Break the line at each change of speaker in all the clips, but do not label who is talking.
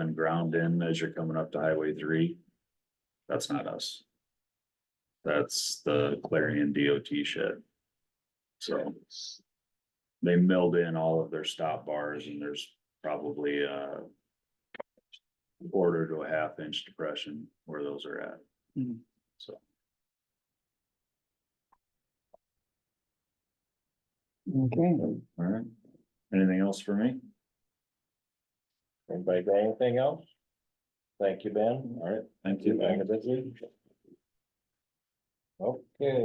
and ground in as you're coming up to Highway three. That's not us. That's the Clarion DOT shit. So. They milled in all of their stop bars and there's probably a. Quarter to a half inch depression where those are at.
Mhm.
So.
Okay,
Alright, anything else for me?
Anybody got anything else? Thank you, Ben.
Alright, thank you.
Back at this meeting. Okay.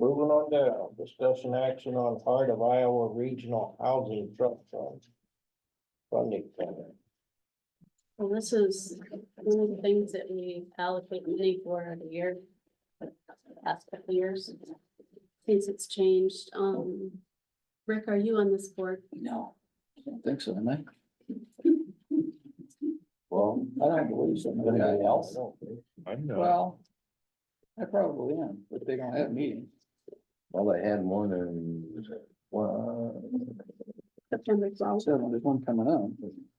Moving on down, discussion action on part of Iowa Regional Housing Trust Fund. Funding. center.
Well, this is one of the things that we allocate money for every year. the Past couple years, since it's changed, um, Rick, are you on this board?
no, I don't think so, am I?
Well, I don't believe so. Anybody else?
I know.
Well, I probably am, but they don't have meetings.
Well, they had one in, well,
September twelfth.
So there's one coming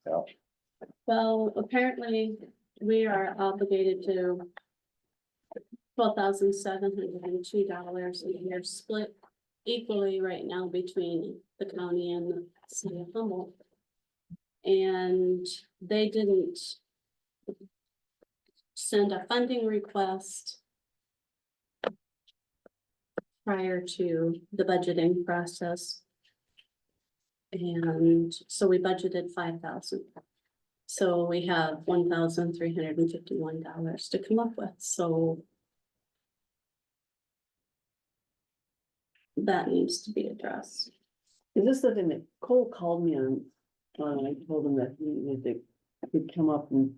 up.
Well, apparently, we are obligated to twelve thousand seven hundred and two dollars a year split equally right now between the county and the city of Humboldt. And they didn't send a funding request prior to the budgeting process. And so we budgeted five thousand. So we have one thousand three hundred and fifty-one dollars to come up with, so. That needs to be addressed.
Is this the thing that Cole called me on, on, and I told him that, he- that they could come up and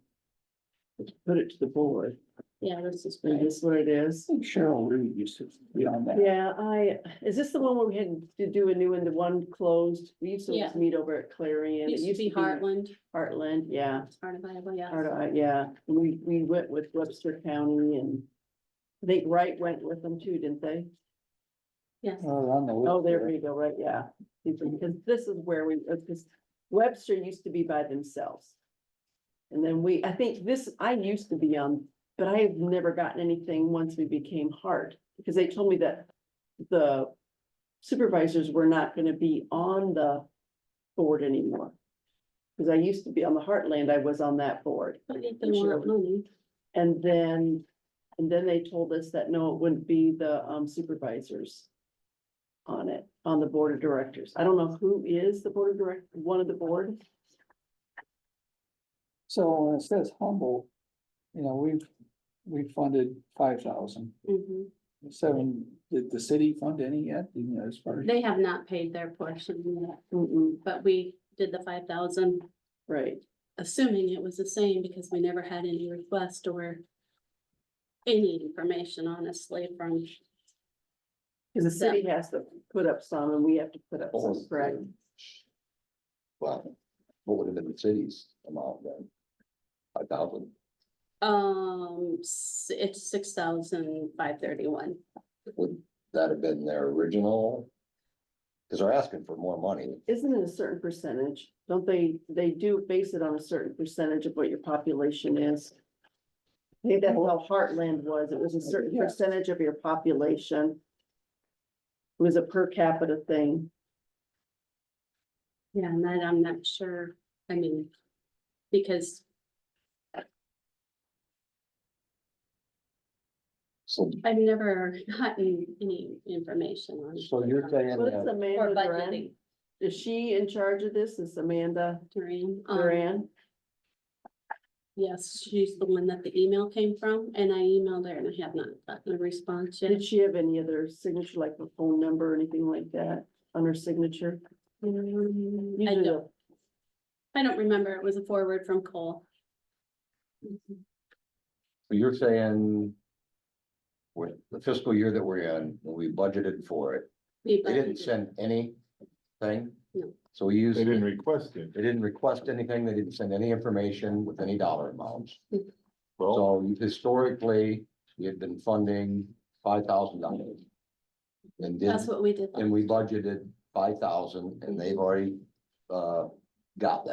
put it to the board,
Yeah, this is.
is this what it is?
I think Cheryl Reed used to be on that.
Yeah, I, is this the one where we had to do a new one, the one closed, we used to
Yeah.
just meet over at Clarion.
Used to be Heartland,
Heartland, yeah,
part of Iowa, yeah.
Heart- uh, yeah, we, we went with Webster County and I think Wright went with them too, didn't they?
Yes,
Oh, on the list
Oh, there we go, right, yeah, because this is where we, because Webster used to be by themselves. And then we, I think this, I used to be on, but I have never gotten anything once we became hard, because they told me that the supervisors were not gonna be on the board anymore. Because I used to be on the Heartland, I was on that board.
but if they want money,
And then, and then they told us that no, it wouldn't be the um, supervisors. On it, on the board of directors. I don't know who is the board of direct, one of the board.
So when it says humble, you know, we've, we funded five thousand,
Mhm.
seven, did the city fund any yet, you know, as far as?
they have not paid their portion yet,
Mm-mm,
but we did the five thousand,
Right,
assuming it was the same because we never had any request or. Any information honestly from
because the city has to put up some and we have to put up
Oh,
some, correct?
Well, what would have been the city's amount then? Five thousand.
Um, s- it's six thousand five thirty-one.
Would that have been their original? Cause they're asking for more money.
Isn't it a certain percentage? Don't they, they do base it on a certain percentage of what your population is? Maybe that's how Heartland was. It was a certain
Yeah.
percentage of your population. It was a per capita thing.
Yeah, and that I'm not sure, I mean, because
So
I've never gotten any information on.
So you're saying
What's
that,
Or
Amanda Duran?
budgeting
Is she in charge of this? Is Amanda
during, um,
Duran?
yes, she's the one that the email came from, and I emailed her and I have not gotten a response yet.
Did she have any other signature, like a phone number or anything like that on her signature?
Um, I
Usually
don't,
the-
I don't remember, it was a forward from Cole.
so you're saying. With the fiscal year that we're in, when we budgeted for it,
We
they didn't
budgeted.
send anything?
No.
So we used,
They
they
didn't request it.
didn't request anything, they didn't send any information with any dollar amounts.
Well,
So historically, we had been funding five thousand dollars. And did,
That's what we did.
and we budgeted five thousand and they've already, uh, got that.